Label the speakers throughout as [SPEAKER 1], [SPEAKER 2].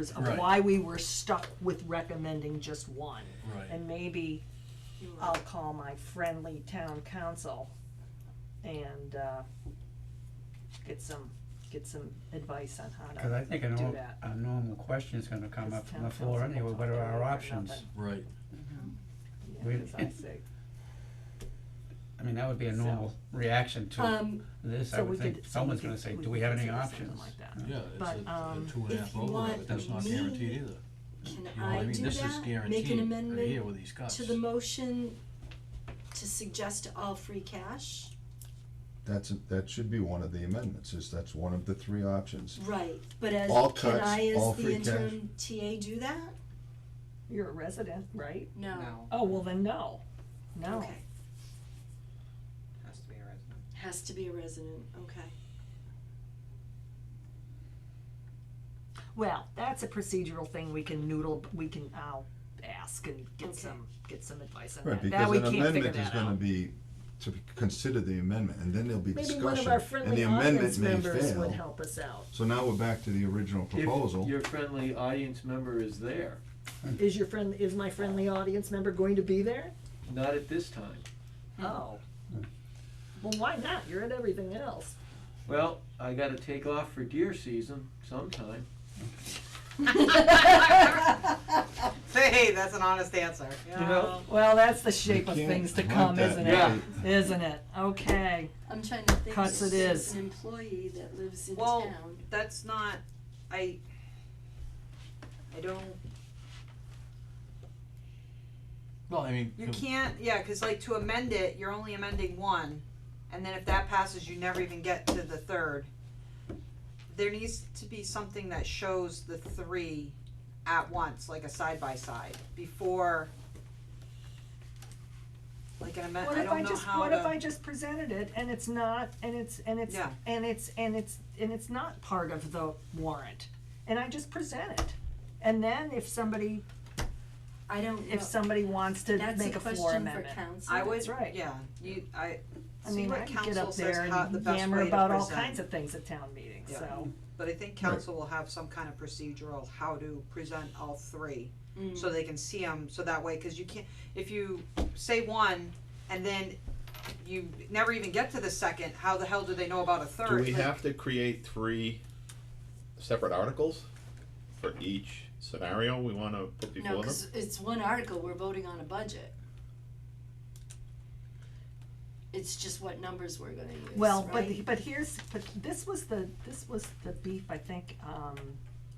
[SPEAKER 1] of
[SPEAKER 2] Right.
[SPEAKER 1] why we were stuck with recommending just one.
[SPEAKER 2] Right.
[SPEAKER 1] And maybe I'll call my friendly town council and, uh, get some, get some advice on how
[SPEAKER 3] Cause I
[SPEAKER 1] to
[SPEAKER 3] think a
[SPEAKER 1] do
[SPEAKER 3] normal,
[SPEAKER 1] that.
[SPEAKER 3] a normal question's gonna come up
[SPEAKER 1] Because
[SPEAKER 3] from the
[SPEAKER 1] town
[SPEAKER 3] floor
[SPEAKER 1] council
[SPEAKER 3] anyway,
[SPEAKER 1] won't
[SPEAKER 3] what
[SPEAKER 1] do
[SPEAKER 3] are
[SPEAKER 1] it
[SPEAKER 3] our
[SPEAKER 1] or
[SPEAKER 3] options?
[SPEAKER 1] nothing.
[SPEAKER 2] Right,
[SPEAKER 1] Yeah,
[SPEAKER 3] We-
[SPEAKER 1] 'cause I say,
[SPEAKER 3] I mean, that would be a
[SPEAKER 1] So-
[SPEAKER 3] normal reaction to
[SPEAKER 1] um,
[SPEAKER 3] this, I
[SPEAKER 1] so we
[SPEAKER 3] would think,
[SPEAKER 1] could, so we
[SPEAKER 3] someone's gonna
[SPEAKER 1] could,
[SPEAKER 3] say,
[SPEAKER 1] we
[SPEAKER 3] do we
[SPEAKER 1] could
[SPEAKER 3] have any
[SPEAKER 1] consider something
[SPEAKER 3] options?
[SPEAKER 1] like that.
[SPEAKER 2] yeah, it's
[SPEAKER 1] But,
[SPEAKER 2] a,
[SPEAKER 1] um,
[SPEAKER 2] a two and a
[SPEAKER 4] if
[SPEAKER 2] half
[SPEAKER 4] you
[SPEAKER 2] over,
[SPEAKER 4] want
[SPEAKER 2] but that's not
[SPEAKER 4] me
[SPEAKER 2] guaranteed either,
[SPEAKER 4] Can
[SPEAKER 2] you know what
[SPEAKER 4] I
[SPEAKER 2] I mean,
[SPEAKER 4] do
[SPEAKER 2] this is
[SPEAKER 4] that? Make an
[SPEAKER 2] guaranteed right here
[SPEAKER 4] amendment
[SPEAKER 2] with these cuts.
[SPEAKER 4] to the motion to suggest all free cash?
[SPEAKER 5] That's, that should be one of the amendments, is that's one of the three options.
[SPEAKER 4] Right, but as,
[SPEAKER 5] All
[SPEAKER 4] can
[SPEAKER 5] cuts,
[SPEAKER 4] I
[SPEAKER 5] all
[SPEAKER 4] as the
[SPEAKER 5] free cash.
[SPEAKER 4] interim TA do that?
[SPEAKER 1] You're a resident, right?
[SPEAKER 4] No,
[SPEAKER 1] Oh, well then, no, no.
[SPEAKER 4] okay,
[SPEAKER 6] Has to be a resident.
[SPEAKER 4] has to be a resident, okay.
[SPEAKER 1] Well, that's a procedural thing we can noodle, we can, I'll ask and
[SPEAKER 4] Okay.
[SPEAKER 1] get some, get some advice on
[SPEAKER 5] Right,
[SPEAKER 1] that. That
[SPEAKER 5] because
[SPEAKER 1] we
[SPEAKER 5] an
[SPEAKER 1] can't figure
[SPEAKER 5] amendment is
[SPEAKER 1] that
[SPEAKER 5] gonna
[SPEAKER 1] out.
[SPEAKER 5] be, to be- consider the amendment, and then there'll be
[SPEAKER 1] Maybe
[SPEAKER 5] discussion,
[SPEAKER 1] one of our
[SPEAKER 5] and the
[SPEAKER 1] friendly audience
[SPEAKER 5] amendment may
[SPEAKER 1] members would
[SPEAKER 5] fail.
[SPEAKER 1] help us out.
[SPEAKER 5] So now we're back to the original
[SPEAKER 7] If
[SPEAKER 5] proposal.
[SPEAKER 7] your friendly audience member is there,
[SPEAKER 1] Is your friend, is my friendly audience member going to be there?
[SPEAKER 7] not at this time.
[SPEAKER 1] Oh. Well, why not? You're at everything else.
[SPEAKER 7] Well, I gotta take off for deer season sometime.
[SPEAKER 6] Hey, that's an honest answer.
[SPEAKER 7] You know?
[SPEAKER 1] Well, that's the shape
[SPEAKER 5] We
[SPEAKER 1] of
[SPEAKER 5] can't
[SPEAKER 1] things to
[SPEAKER 5] hunt
[SPEAKER 1] come,
[SPEAKER 5] that
[SPEAKER 1] isn't
[SPEAKER 7] Yeah.
[SPEAKER 1] it? Isn't it? Okay.
[SPEAKER 4] I'm trying to think,
[SPEAKER 1] Cuts it
[SPEAKER 4] there's
[SPEAKER 1] is.
[SPEAKER 4] an employee that lives in town.
[SPEAKER 6] Well, that's not, I, I don't,
[SPEAKER 2] Well, I mean,
[SPEAKER 6] you
[SPEAKER 2] com-
[SPEAKER 6] can't, yeah, cause like to amend it, you're only amending one, and then if that passes, you never even get to the third. There needs to be something that shows the three at once, like a side by side, before. Like an amend,
[SPEAKER 1] What
[SPEAKER 6] I
[SPEAKER 1] if I
[SPEAKER 6] don't know
[SPEAKER 1] just,
[SPEAKER 6] how
[SPEAKER 1] what if I
[SPEAKER 6] to,
[SPEAKER 1] just presented it and it's not, and it's, and it's,
[SPEAKER 6] Yeah.
[SPEAKER 1] and it's, and it's, and it's not part of the warrant? And I just present it. And then if somebody,
[SPEAKER 4] I don't know.
[SPEAKER 1] if somebody wants to
[SPEAKER 4] That's
[SPEAKER 1] make
[SPEAKER 4] a
[SPEAKER 1] a floor
[SPEAKER 4] question for
[SPEAKER 1] amendment.
[SPEAKER 4] council.
[SPEAKER 6] I
[SPEAKER 1] That's
[SPEAKER 6] would,
[SPEAKER 1] right.
[SPEAKER 6] yeah, you, I,
[SPEAKER 1] I
[SPEAKER 6] see
[SPEAKER 1] mean, I
[SPEAKER 6] what
[SPEAKER 1] can get
[SPEAKER 6] council
[SPEAKER 1] up
[SPEAKER 6] says
[SPEAKER 1] there
[SPEAKER 6] how, the
[SPEAKER 1] and
[SPEAKER 6] best way
[SPEAKER 1] yammer
[SPEAKER 6] to
[SPEAKER 1] about all
[SPEAKER 6] present.
[SPEAKER 1] kinds of things at town meetings.
[SPEAKER 6] Yeah.
[SPEAKER 1] so.
[SPEAKER 6] But I think council will have some kind of procedural how to present all three,
[SPEAKER 4] Mm.
[SPEAKER 6] so they can see them, so that way, cause you can't, if you say one, and then you never even get to the second, how the hell do they know about a
[SPEAKER 8] Do
[SPEAKER 6] third?
[SPEAKER 8] we
[SPEAKER 6] Like,
[SPEAKER 8] have to create three separate articles for each scenario we wanna put
[SPEAKER 4] No,
[SPEAKER 8] before them?
[SPEAKER 4] cause it's one article, we're voting on a budget. It's just what numbers we're gonna use, right?
[SPEAKER 1] Well, but, the- but here's, but this was the, this was the beef, I think, um,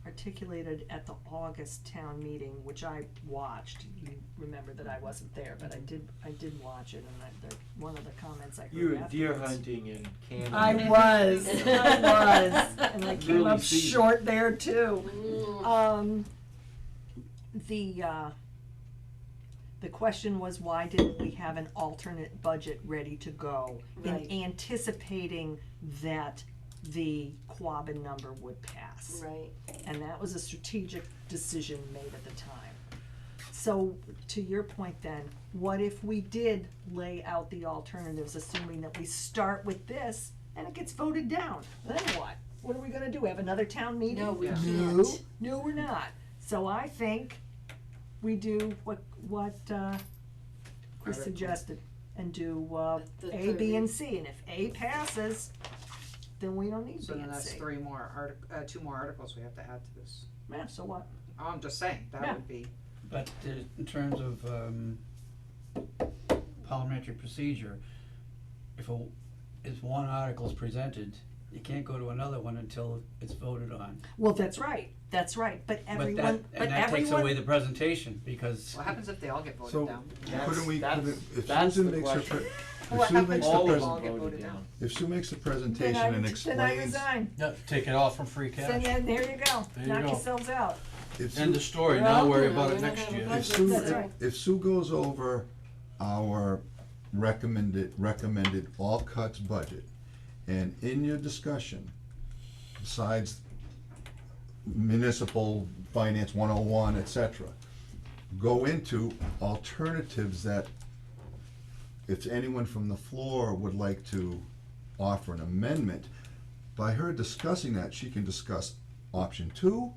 [SPEAKER 1] articulated at the August town meeting, which I watched. You remember that I wasn't there, but I did, I did watch it, and I, the, one of the comments I heard
[SPEAKER 7] You were deer
[SPEAKER 1] afterwards-
[SPEAKER 7] hunting in Canada.
[SPEAKER 1] I was, I was, and I came
[SPEAKER 7] Really
[SPEAKER 1] up
[SPEAKER 7] seasoned.
[SPEAKER 1] short there too.
[SPEAKER 4] Mm.
[SPEAKER 1] Um, the, uh, the question was, why didn't we have an alternate budget ready to go?
[SPEAKER 4] Right.
[SPEAKER 1] In anticipating that the Quabbin number would pass.
[SPEAKER 4] Right,
[SPEAKER 1] And that was a strategic decision made at the time. So, to your point then, what if we did lay out the alternatives, assuming that we start with this and it gets voted down? Then what? What are we gonna do? Have another town meeting?
[SPEAKER 4] No, we Yeah.
[SPEAKER 1] No,
[SPEAKER 4] can't.
[SPEAKER 1] no, we're not. So I think we do what, what, uh, Chris
[SPEAKER 6] Article.
[SPEAKER 1] suggested and do, uh,
[SPEAKER 4] The
[SPEAKER 1] A, B,
[SPEAKER 4] thirty.
[SPEAKER 1] and C. And if A passes, then we don't need
[SPEAKER 6] So
[SPEAKER 1] B
[SPEAKER 6] then
[SPEAKER 1] and
[SPEAKER 6] that's
[SPEAKER 1] C.
[SPEAKER 6] three more artic- uh, two more articles we have to add to this, Oh,
[SPEAKER 1] Yeah, so what?
[SPEAKER 6] I'm just saying,
[SPEAKER 1] Yeah.
[SPEAKER 6] that would be,
[SPEAKER 3] But uh, in terms of, um, parliamentary procedure, if a, if one article's presented, you can't go to another one until it's voted on.
[SPEAKER 1] Well, that's right, that's right, but
[SPEAKER 3] But that,
[SPEAKER 1] everyone, but
[SPEAKER 3] and that takes away
[SPEAKER 1] everyone,
[SPEAKER 3] the presentation, because
[SPEAKER 6] what happens if they all get
[SPEAKER 5] So-
[SPEAKER 6] voted down?
[SPEAKER 5] Couldn't we,
[SPEAKER 7] That's-
[SPEAKER 5] couldn't- if
[SPEAKER 7] that's
[SPEAKER 5] Susan
[SPEAKER 7] the
[SPEAKER 5] makes her,
[SPEAKER 7] question.
[SPEAKER 5] pre-
[SPEAKER 6] What
[SPEAKER 5] if Sue
[SPEAKER 6] happens
[SPEAKER 5] makes
[SPEAKER 6] if
[SPEAKER 5] the
[SPEAKER 7] All of
[SPEAKER 6] they
[SPEAKER 5] pres-
[SPEAKER 7] them
[SPEAKER 6] all get voted down?
[SPEAKER 5] if Sue makes the
[SPEAKER 1] then
[SPEAKER 5] presentation
[SPEAKER 1] I,
[SPEAKER 5] and
[SPEAKER 1] then I
[SPEAKER 5] explains,
[SPEAKER 1] resign,
[SPEAKER 2] no, take it off from free
[SPEAKER 1] then,
[SPEAKER 2] cash,
[SPEAKER 1] yeah, there you go,
[SPEAKER 2] There you
[SPEAKER 1] knock
[SPEAKER 2] go.
[SPEAKER 1] yourselves out.
[SPEAKER 5] if Sue
[SPEAKER 2] end of story,
[SPEAKER 4] We're
[SPEAKER 2] now
[SPEAKER 4] all
[SPEAKER 2] worry
[SPEAKER 4] gonna-
[SPEAKER 2] about
[SPEAKER 4] we're
[SPEAKER 2] it
[SPEAKER 4] not
[SPEAKER 2] next
[SPEAKER 4] gonna
[SPEAKER 2] year.
[SPEAKER 4] budget.
[SPEAKER 5] If Sue,
[SPEAKER 1] That's
[SPEAKER 5] if-
[SPEAKER 1] right.
[SPEAKER 5] if Sue goes over our recommended, recommended all cuts budget, and in your discussion, besides municipal finance one oh one, et cetera, go into alternatives that if anyone from the floor would like to offer an amendment, by her discussing that, she can discuss option two,